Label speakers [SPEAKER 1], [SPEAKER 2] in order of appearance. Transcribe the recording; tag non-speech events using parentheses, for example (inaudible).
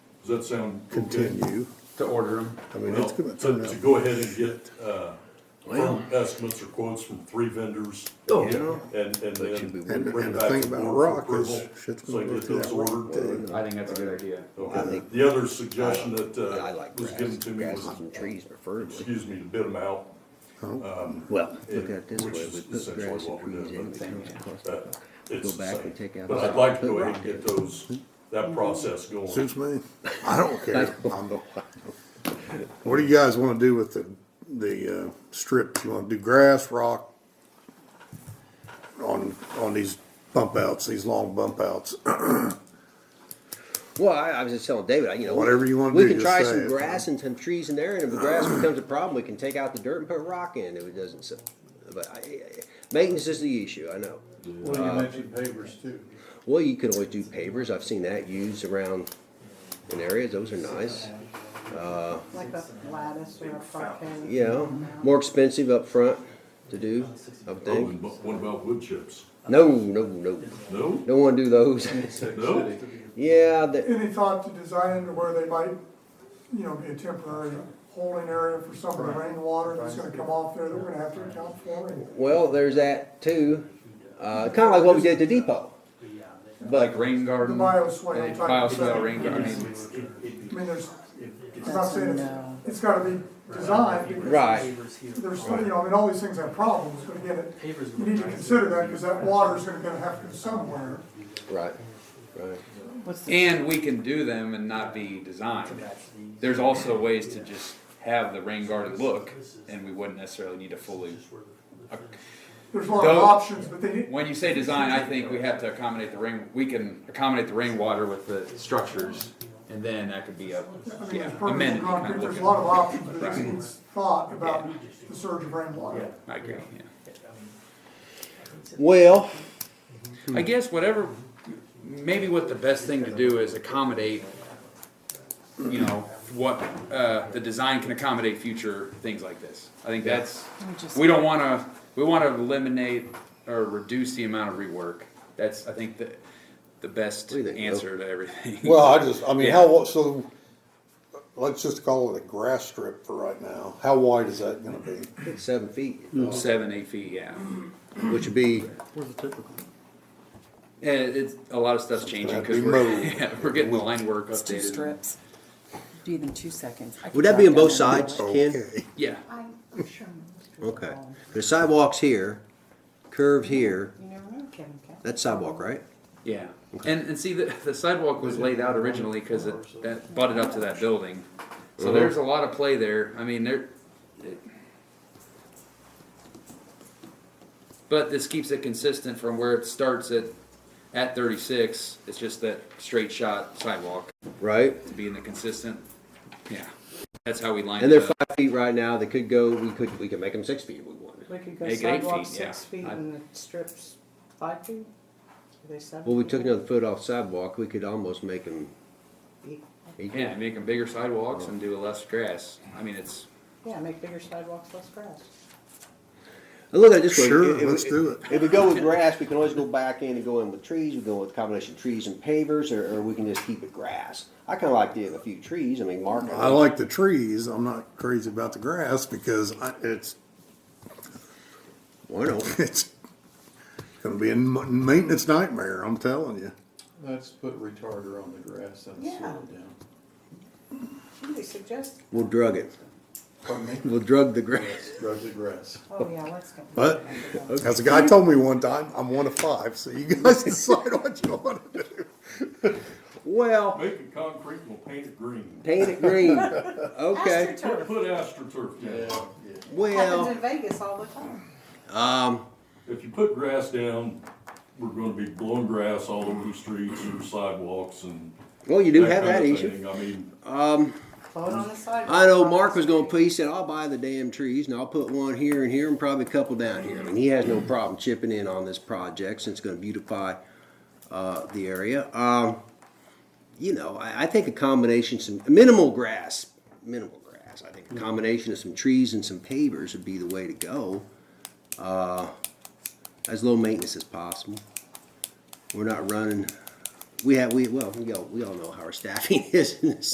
[SPEAKER 1] Does that sound? okay?
[SPEAKER 2] continue.
[SPEAKER 3] to order them.
[SPEAKER 2] I mean,
[SPEAKER 1] Well,
[SPEAKER 2] it's gonna turn
[SPEAKER 1] to, to
[SPEAKER 2] out.
[SPEAKER 1] go ahead and get, uh, firm estimates or quotes from three vendors.
[SPEAKER 3] Oh,
[SPEAKER 1] and-
[SPEAKER 3] yeah.
[SPEAKER 1] And, and then
[SPEAKER 2] And,
[SPEAKER 1] bring
[SPEAKER 2] and
[SPEAKER 1] it
[SPEAKER 2] the
[SPEAKER 1] back
[SPEAKER 2] thing
[SPEAKER 1] to the
[SPEAKER 2] about
[SPEAKER 1] board
[SPEAKER 2] rock
[SPEAKER 1] for
[SPEAKER 2] is,
[SPEAKER 1] approval.
[SPEAKER 2] shit's
[SPEAKER 1] So I
[SPEAKER 2] gonna go
[SPEAKER 1] get
[SPEAKER 2] through
[SPEAKER 1] those
[SPEAKER 2] that rock
[SPEAKER 1] ordered.
[SPEAKER 2] too.
[SPEAKER 3] I think that's a good idea.
[SPEAKER 4] I
[SPEAKER 1] Okay,
[SPEAKER 4] think-
[SPEAKER 1] the other suggestion that,
[SPEAKER 4] I
[SPEAKER 1] uh,
[SPEAKER 4] like
[SPEAKER 1] was
[SPEAKER 4] grass,
[SPEAKER 1] given to me
[SPEAKER 4] grasses
[SPEAKER 1] was,
[SPEAKER 4] and trees preferably.
[SPEAKER 1] excuse me, to bid them out.
[SPEAKER 4] Well,
[SPEAKER 1] Yeah,
[SPEAKER 4] look at it this
[SPEAKER 1] which
[SPEAKER 4] way,
[SPEAKER 1] is
[SPEAKER 4] we put
[SPEAKER 1] essentially
[SPEAKER 4] grass
[SPEAKER 1] what
[SPEAKER 4] and
[SPEAKER 1] we're doing,
[SPEAKER 4] trees in,
[SPEAKER 1] but
[SPEAKER 4] it comes across.
[SPEAKER 1] Uh, It's
[SPEAKER 4] Go
[SPEAKER 1] the
[SPEAKER 4] back
[SPEAKER 1] same.
[SPEAKER 4] and take out
[SPEAKER 1] But
[SPEAKER 4] the
[SPEAKER 1] I'd like to
[SPEAKER 4] rock.
[SPEAKER 1] go ahead and get those, that process going.
[SPEAKER 2] Suits me. I don't care. I'm the- What do you guys wanna do with the, the, uh, strips? You wanna do grass, rock? On, on these bump outs, these long bump outs? (clears throat)
[SPEAKER 4] Well, I, I was just telling David, I- you know.
[SPEAKER 2] Whatever you wanna
[SPEAKER 4] We
[SPEAKER 2] do,
[SPEAKER 4] can
[SPEAKER 2] just
[SPEAKER 4] try
[SPEAKER 2] say
[SPEAKER 4] some
[SPEAKER 2] it.
[SPEAKER 4] grass and some trees in there, and if the (clears throat) grass becomes a problem, we can take out the dirt and put rock in if it doesn't, so. But I, I- maintenance is the issue, I know. Uh,
[SPEAKER 5] Well, you mentioned pavers too.
[SPEAKER 4] Well, you could always do pavers, I've seen that used around in areas, those are nice.
[SPEAKER 6] Like a lattice or a parquet.
[SPEAKER 4] You know, more expensive up front to do, I would
[SPEAKER 1] Oh,
[SPEAKER 4] think.
[SPEAKER 1] and bu- what about wood chips?
[SPEAKER 4] No, no, no,
[SPEAKER 1] No?
[SPEAKER 4] don't wanna do those.
[SPEAKER 1] No?
[SPEAKER 4] Yeah, that,
[SPEAKER 7] Any thought to designing to where they might, you know, be a temporary holding area for some of the rainwater that's gonna come off there that we're gonna have to account for? and-
[SPEAKER 4] Well, there's that too. Uh, kind of like what we did at the depot.
[SPEAKER 3] Like
[SPEAKER 4] But
[SPEAKER 3] rain garden.
[SPEAKER 7] The bioswale
[SPEAKER 3] uh,
[SPEAKER 7] type
[SPEAKER 3] Bioswale
[SPEAKER 7] stuff.
[SPEAKER 3] rain garden.
[SPEAKER 7] I mean, there's, I'm not saying it's, it's gotta be designed. because
[SPEAKER 4] right,
[SPEAKER 7] There's, you know, I mean, all these things have problems, but again, it- you need to consider that, cause that water's gonna gonna have to go somewhere.
[SPEAKER 4] right, right.
[SPEAKER 3] And we can do them and not be designed. There's also ways to just have the rain garden look, and we wouldn't necessarily need to fully.
[SPEAKER 7] There's a lot of
[SPEAKER 3] Though-
[SPEAKER 7] options, but they need,
[SPEAKER 3] When you say design, I think we have to accommodate the rain. We can accommodate the rainwater with the structures, and then that could be a
[SPEAKER 7] I mean,
[SPEAKER 3] yeah,
[SPEAKER 7] there's permanent
[SPEAKER 3] amended kind
[SPEAKER 7] concrete,
[SPEAKER 3] of
[SPEAKER 7] there's a
[SPEAKER 3] look.
[SPEAKER 7] lot of options, but it
[SPEAKER 3] Right.
[SPEAKER 7] needs thought about the surge of rainwater.
[SPEAKER 3] I agree. Yeah.
[SPEAKER 4] Well,
[SPEAKER 3] I guess whatever, maybe what the best thing to do is accommodate, you know, what, uh, the design can accommodate future things like this. I think that's, we don't wanna, we wanna eliminate or reduce the amount of rework. That's, I think, the, the best
[SPEAKER 4] What do you think, Bill?
[SPEAKER 3] answer to (laughs) everything.
[SPEAKER 2] Well, I just, I mean,
[SPEAKER 3] Yeah.
[SPEAKER 2] how, so, let's just call it a grass strip for right now. How wide is that gonna be?
[SPEAKER 4] seven feet,
[SPEAKER 3] Seven, eight feet, yeah.
[SPEAKER 4] which would be
[SPEAKER 3] Yeah, it's, a lot of stuff's changing, cause
[SPEAKER 2] That'd be
[SPEAKER 3] we're,
[SPEAKER 2] mowed.
[SPEAKER 3] (laughs) yeah, we're getting the line work
[SPEAKER 8] It's two
[SPEAKER 3] updated.
[SPEAKER 8] strips. Do it in two seconds. I can
[SPEAKER 4] Would that be
[SPEAKER 8] jot
[SPEAKER 4] on both
[SPEAKER 8] down the
[SPEAKER 4] sides?
[SPEAKER 8] middle.
[SPEAKER 4] Ken?
[SPEAKER 3] Yeah,
[SPEAKER 6] I'm I'm sure. most
[SPEAKER 4] Okay.
[SPEAKER 6] people-
[SPEAKER 4] There's sidewalks here, curved here.
[SPEAKER 6] You never know, Kevin. Kevin.
[SPEAKER 4] That's sidewalk, right?
[SPEAKER 3] yeah. And, and see, the, the sidewalk was laid out originally, cause it, that butted up to that building.
[SPEAKER 4] Mm-hmm.
[SPEAKER 3] So there's a lot of play there, I mean, there. it- But this keeps it consistent from where it starts at, at thirty-six, it's just that straight shot sidewalk
[SPEAKER 4] Right.
[SPEAKER 3] to be in the consistent, yeah. That's how we lined
[SPEAKER 4] And they're
[SPEAKER 3] it up.
[SPEAKER 4] five feet right now. They could go. We could. We could make them six feet if we wanted.
[SPEAKER 6] We could go
[SPEAKER 3] Make it eight
[SPEAKER 6] sidewalk
[SPEAKER 3] feet,
[SPEAKER 6] six
[SPEAKER 3] yeah.
[SPEAKER 6] feet
[SPEAKER 3] I-
[SPEAKER 6] and the strips five feet? Are they seven?
[SPEAKER 4] Well, we took
[SPEAKER 6] feet?
[SPEAKER 4] another foot off sidewalk. We could almost make them. equal.
[SPEAKER 3] Yeah, make them bigger sidewalks and do less grass, I mean, it's,
[SPEAKER 6] Yeah, make bigger sidewalks, less grass.
[SPEAKER 4] And look at it this way.
[SPEAKER 2] Sure,
[SPEAKER 4] if- if-
[SPEAKER 2] let's do it.
[SPEAKER 4] If we go with grass, we can always go back in and go in with trees, we go with combination of trees and pavers, or, or we can just keep it grass. I kinda like the, a few trees, I mean, Mark.
[SPEAKER 2] I like the trees. I'm not crazy about the grass because I, it's,
[SPEAKER 4] Why
[SPEAKER 2] (laughs)
[SPEAKER 4] not?
[SPEAKER 2] it's gonna be a ma- maintenance nightmare, I'm telling you.
[SPEAKER 5] Let's put retarder on the grass, that'll
[SPEAKER 6] Yeah.
[SPEAKER 5] slow it down.
[SPEAKER 6] What do they suggest?
[SPEAKER 4] We'll drug it.
[SPEAKER 5] Pardon me?
[SPEAKER 4] We'll drug the grass.
[SPEAKER 5] Drug the grass.
[SPEAKER 6] Oh, yeah, let's go.
[SPEAKER 2] But as a guy told me one time, I'm one of five, so you guys (laughs) decide what you want to do.
[SPEAKER 4] Well,
[SPEAKER 1] Make it concrete and we'll paint it green.
[SPEAKER 4] paint it
[SPEAKER 5] (laughs)
[SPEAKER 4] green. Okay,
[SPEAKER 1] Put
[SPEAKER 6] AstroTurf
[SPEAKER 1] put astroturf down.
[SPEAKER 5] Yeah, yeah.
[SPEAKER 4] well.
[SPEAKER 6] happens in Vegas all the time.
[SPEAKER 1] If you put grass down, we're gonna be blowing grass all over the streets and sidewalks and.
[SPEAKER 4] Well, you do have
[SPEAKER 1] kind
[SPEAKER 4] that
[SPEAKER 1] of
[SPEAKER 4] issue.
[SPEAKER 1] thing. I mean,
[SPEAKER 6] Float on the sidewalk.
[SPEAKER 4] I know Mark was gonna, put. he said, I'll buy the damn trees and I'll put one here and here and probably a couple down here. And he has no problem chipping in on this project since it's gonna beautify, uh, the area. Um, you know, I, I think a combination, some minimal grass, minimal grass. I think a combination of some trees and some pavers would be the way to go. Uh, as low maintenance as possible. We're not running, we have, we, well, we all, we all know how our staffing (laughs) is in this